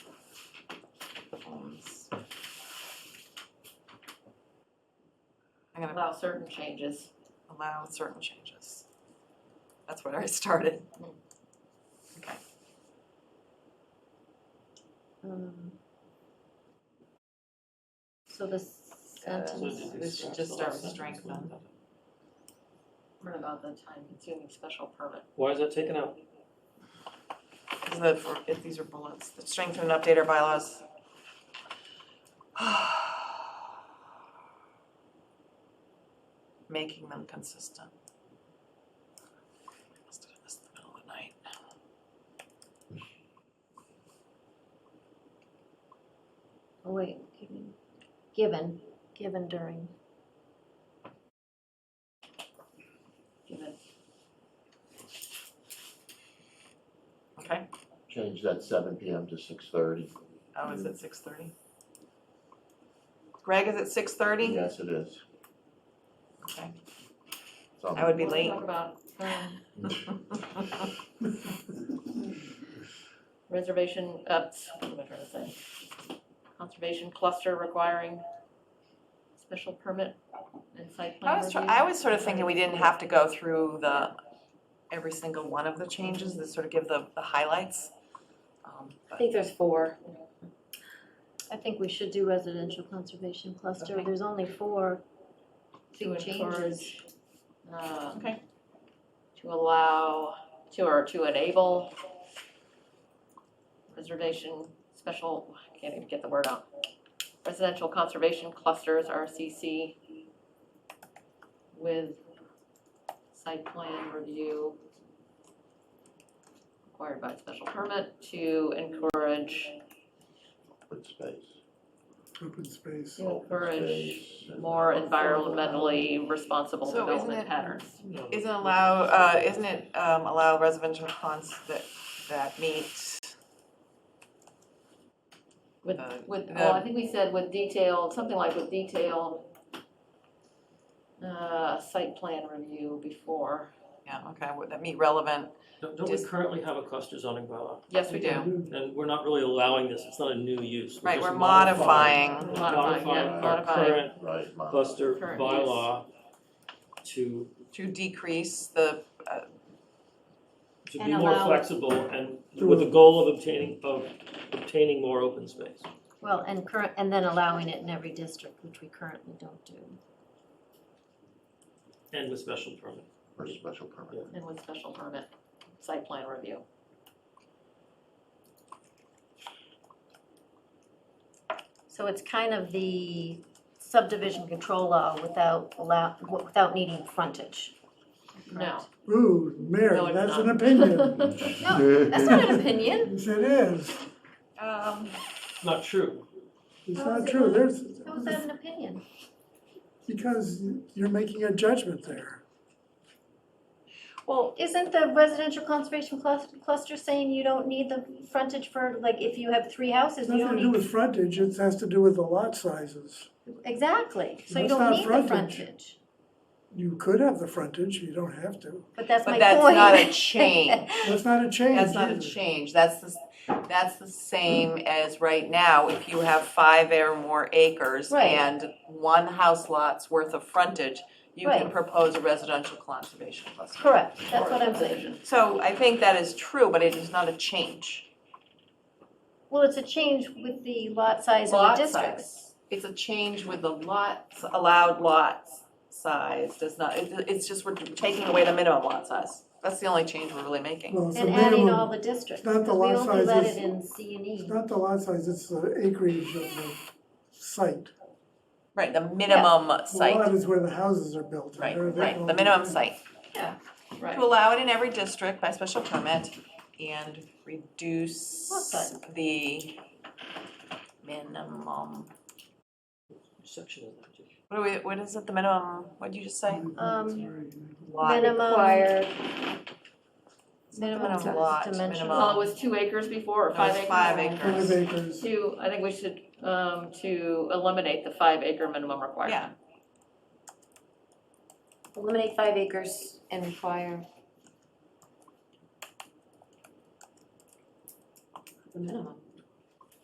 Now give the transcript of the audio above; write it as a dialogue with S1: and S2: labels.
S1: I'm gonna
S2: allow certain changes.
S1: allow certain changes. That's where I started.
S3: Um, So the sentence,
S1: we should just start with strengthen.
S2: What about the time consuming special permit?
S4: Why is that taken out?
S1: Is that for, if these are bullets, the strengthen and update our bylaws. Making them consistent. Must have done this in the middle of the night.
S3: oh wait, given, given, given during,
S2: Given,
S1: Okay,
S5: Change that seven PM to six thirty.
S1: oh, is it six thirty? Greg, is it six thirty?
S5: Yes, it is.
S1: Okay.
S5: So-
S1: I would be
S2: Let's
S1: late.
S2: Talk about um, reservation, uh, what am I trying to say? Conservation cluster requiring special permit and site
S1: I
S2: plan
S1: was,
S2: review.
S1: try- I was sort of thinking we didn't have to go through the, every single one of the changes, to sort of give the, the highlights. Um,
S6: I
S1: but
S6: think there's four.
S3: I think we should do residential conservation cluster,
S1: Okay.
S3: there's only four
S2: To
S3: big changes.
S2: encourage, um,
S1: Okay.
S2: To allow, to, or to enable reservation special, I can't even get the word out. Residential conservation clusters, RCC, with site plan review required by special permit to encourage,
S5: Open space.
S7: open space.
S2: to encourage
S5: space and-
S2: more environmentally responsible
S1: So isn't
S2: development
S1: it-
S2: patterns.
S1: Isn't allow, uh, isn't it, um, allow residential cons that, that meet,
S2: With,
S1: Uh,
S2: with,
S1: the-
S2: well, I think we said with detailed, something like with detailed uh, site plan review before.
S1: yeah, okay, would that meet relevant?
S4: Don't don't we
S1: Just-
S4: currently have a cluster zoning bylaw?
S2: Yes, we do.
S4: And we're not really allowing this, it's not a new use.
S1: Right,
S4: just
S1: we're modifying.
S4: modifying-
S2: Modifying, yeah,
S4: Modifying our
S2: modifying.
S4: current
S5: Right, my-
S4: cluster
S2: Current
S4: bylaw to,
S1: To decrease the,
S4: to
S3: And
S4: be more
S3: allow-
S4: flexible and with the goal of obtaining, of obtaining more open space.
S3: Well, and current, and then allowing it in every district, which we currently don't do.
S4: And with special permit.
S5: For special permit.
S2: And with special permit, site plan review.
S3: So it's kind of the subdivision control law without allow, without needing frontage.
S2: No.
S7: Ooh, Mary,
S2: No, it's
S7: that's
S2: not.
S7: an opinion.
S3: That's not an opinion.
S7: Yes, it is.
S1: um,
S4: Not true.
S7: It's
S3: How is
S7: not
S3: it
S7: true.
S3: not?
S7: There's,
S3: How is that an opinion?
S7: because you're making a judgment there.
S1: well,
S3: Isn't the residential conservation clus- cluster saying you don't need the frontage for, like, if you have three houses,
S7: It's
S3: you
S7: nothing
S3: don't
S7: to do
S3: need?
S7: with frontage, it has to do with the lot sizes.
S3: Exactly, so you don't
S7: That's not
S3: need the
S7: frontage.
S3: frontage.
S7: You could have the frontage, you don't have to.
S3: But that's my
S1: but
S3: point.
S1: that's not a change.
S7: That's not a change
S1: That's not a
S7: either.
S1: change, that's the, s- that's the same as right now, if you have five or more acres
S3: Right.
S1: and one house lot's worth of frontage, you can
S3: Right.
S1: propose a residential conservation cluster.
S3: Correct, that's what I'm saying.
S1: So I think that is true, but it is not a change.
S3: Well, it's a change with the lot size and the
S1: Lot
S3: districts.
S1: size. It's a change with the lots, allowed lots size does not, it, it's just we're taking away the minimum lot size. That's the only change we're really making.
S7: Well, it's a
S3: And adding all
S7: minimum,
S3: the districts,
S7: It's not the
S3: because we
S7: lot
S3: only let
S7: sizes.
S3: it in C and
S7: it's
S3: E.
S7: not the lot size, it's the acreage of the site.
S1: Right, the minimum
S7: The lot
S1: site,
S7: is where the houses are built. and
S1: right,
S7: they're- they're
S1: right,
S7: all-
S1: the minimum site.
S2: Right.
S1: To allow it in every district by special permit and reduce
S3: Lot size.
S1: the minimum.
S4: Section of that.
S1: What do we, what is it, the minimum, what'd you just say?
S7: Um,
S1: Lot.
S3: Mm. Minimum-
S6: Required.
S1: It's not the
S3: minimum
S1: Minimum lot,
S3: dimension.
S1: minimum.
S2: Well, it was two acres before, or
S1: No,
S2: five
S1: it's
S2: acres?
S1: five
S7: Five
S1: acres.
S7: acres.
S2: Two, I think we should, um, to eliminate the five acre minimum
S1: Yeah,
S2: requirement.
S6: Eliminate five acres and require. The minimum.